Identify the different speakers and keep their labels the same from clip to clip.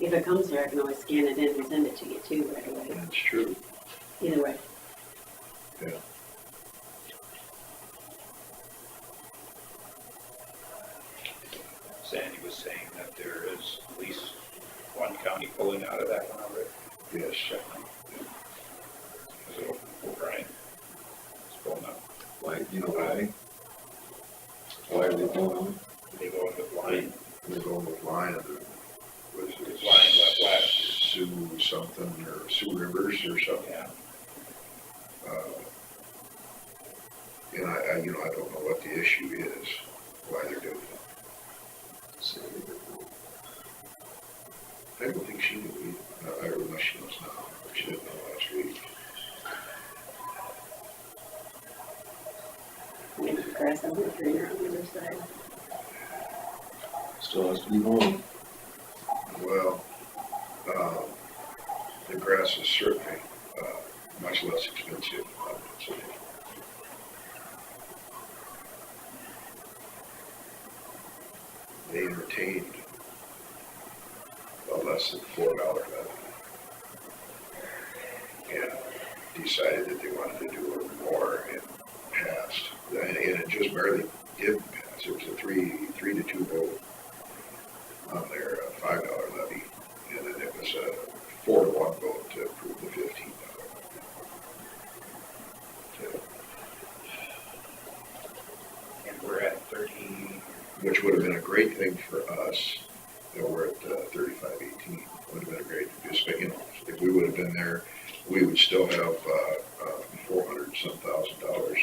Speaker 1: If it comes here, I can always scan it in and send it to you too right away,
Speaker 2: That's true.
Speaker 1: either way.
Speaker 3: Sandy was saying that there is at least one county pulling out of that one already.
Speaker 2: Yes.
Speaker 3: So, O'Brien is pulling out.
Speaker 2: Why, you know why? Why are they going,
Speaker 3: They go into line,
Speaker 2: they're going with Lion, or was
Speaker 3: because
Speaker 2: it
Speaker 3: line left last
Speaker 2: Sioux something, or Sioux Rivers or
Speaker 3: year, so,
Speaker 2: something?
Speaker 3: yeah.
Speaker 2: Uh, And I, I, you know, I don't know what the issue is, why they're doing it. So, I don't think she knew either, I, I don't know she knows now, she didn't know last week.
Speaker 1: Maybe grass over the greener on the other side.
Speaker 4: Still has to be mowed.
Speaker 2: Well, um, the grass is certainly, uh, much less expensive, I would say. They entertained a less than four dollar levy. And decided that they wanted to do it more and passed, and, and it just barely did pass, it was a three, three to two vote on their uh, five dollar levy, and then it was a four to one vote to approve the fifteen dollar.
Speaker 3: And we're at thirty,
Speaker 2: Which would have been a great thing for us, you know, we're at uh, thirty-five eighteen, would have been a great, just, you know, if we would have been there, we would still have, uh, uh, four hundred some thousand dollars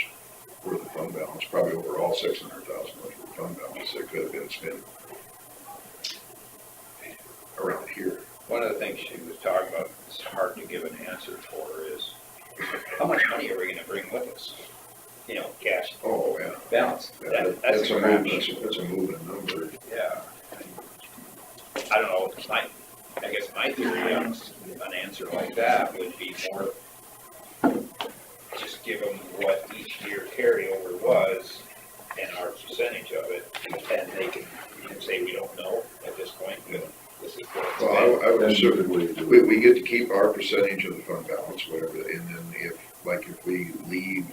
Speaker 2: worth of fund balance, probably overall six hundred thousand dollars worth of fund balance that could have been spent around here.
Speaker 3: one of the things she was talking about, it's hard to give an answer for is, how much money are we gonna bring with us? You know, cash
Speaker 2: Oh, yeah.
Speaker 3: balance, that, that's
Speaker 2: That's
Speaker 3: a
Speaker 2: a
Speaker 3: crap
Speaker 2: moving, that's a moving number.
Speaker 3: Yeah. I don't know, my, I guess my theory on s- an answer like that would be more, just give them what each year carryover was and our percentage of it, and they can, you can say, we don't know at this point, but this is what it's
Speaker 2: Well, I, I would
Speaker 4: That's a
Speaker 2: assume,
Speaker 4: good way to do
Speaker 2: we,
Speaker 4: it.
Speaker 2: we get to keep our percentage of the fund balance, whatever, and then if, like, if we leave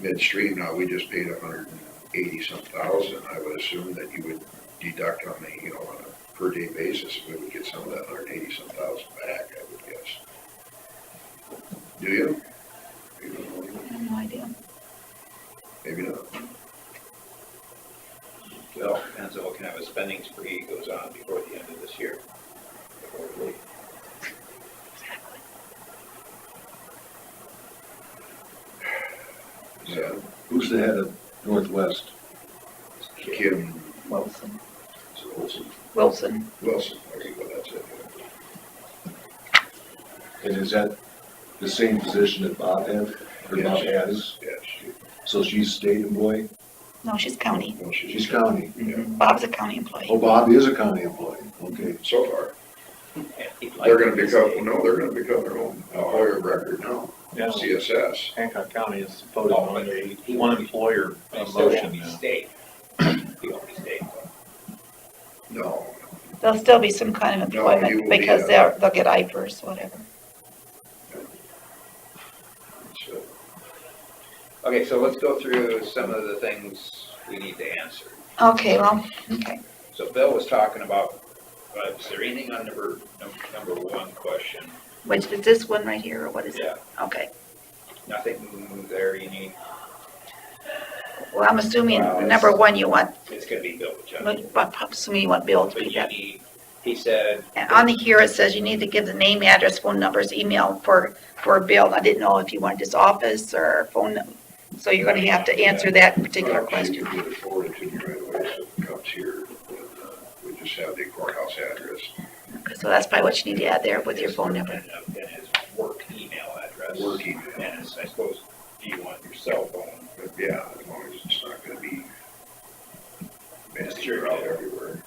Speaker 2: midstream, now we just paid a hundred and eighty-some thousand, I would assume that you would deduct on the, you know, on a per day basis, we would get some of that hundred and eighty-some thousand back, I would guess. Do you? You don't know,
Speaker 5: I have no idea.
Speaker 2: Maybe not.
Speaker 3: It all depends on what kind of a spending spree goes on before the end of this year. before we leave.
Speaker 5: Exactly.
Speaker 2: Yeah,
Speaker 4: Who's the head of Northwest?
Speaker 2: Kim
Speaker 5: Wilson.
Speaker 2: Wilson,
Speaker 5: Wilson.
Speaker 2: Wilson, okay, well, that's it.
Speaker 4: And is that the same position that Bob had, or Bob has?
Speaker 2: Yes, she-
Speaker 4: So she's state employee?
Speaker 5: No, she's county.
Speaker 2: no, she's.
Speaker 4: She's county.
Speaker 2: Yeah,
Speaker 5: Bob's a county
Speaker 4: Oh,
Speaker 5: employee.
Speaker 4: Bob is a county employee, okay.
Speaker 2: so far.
Speaker 3: And he'd like
Speaker 2: They're gonna
Speaker 3: to
Speaker 2: become,
Speaker 3: stay.
Speaker 2: no, they're gonna become their own employer of record now,
Speaker 6: Yeah,
Speaker 2: CSS.
Speaker 6: Hancock County is voting
Speaker 3: Oh,
Speaker 6: on
Speaker 3: but
Speaker 6: a
Speaker 3: he-
Speaker 6: one employer
Speaker 3: They still won't
Speaker 6: motion
Speaker 3: be
Speaker 6: now.
Speaker 3: state. He won't be state, but-
Speaker 2: No,
Speaker 5: There'll still be some kind of
Speaker 2: No, you
Speaker 5: employment
Speaker 2: will be
Speaker 5: because
Speaker 2: a-
Speaker 5: they're, they'll get IFRS, whatever.
Speaker 2: it's, uh,
Speaker 3: Okay, so let's go through some of the things we need to answer.
Speaker 5: Okay, well, okay.
Speaker 3: So Bill was talking about, uh, is there anything on number, num- number one question?
Speaker 5: Which is this one right here, or what is it?
Speaker 3: Yeah,
Speaker 5: Okay.
Speaker 3: nothing there you need,
Speaker 5: Well, I'm assuming
Speaker 3: Wow, it's-
Speaker 5: number one, you want,
Speaker 3: it's gonna be Bill, which I,
Speaker 5: but I'm assuming you want Bill to
Speaker 3: but
Speaker 5: be
Speaker 3: you
Speaker 5: that.
Speaker 3: need, he said,
Speaker 5: And on the here, it says you need to give the name, address, phone numbers, email for, for Bill. I didn't know if you wanted his office or phone. num- So you're gonna have to answer that particular
Speaker 2: well, uh, she
Speaker 5: question.
Speaker 2: can Get it forwarded to me right away, so it comes here, and, uh, we just have the courthouse address.
Speaker 5: So that's probably what you need to add there with your phone number.
Speaker 3: and uh, and his work email address.
Speaker 2: Work email.
Speaker 3: And it's- I suppose, do you want your cell phone?
Speaker 2: But yeah, as long as it's not gonna be messy
Speaker 3: Sure.
Speaker 2: out everywhere.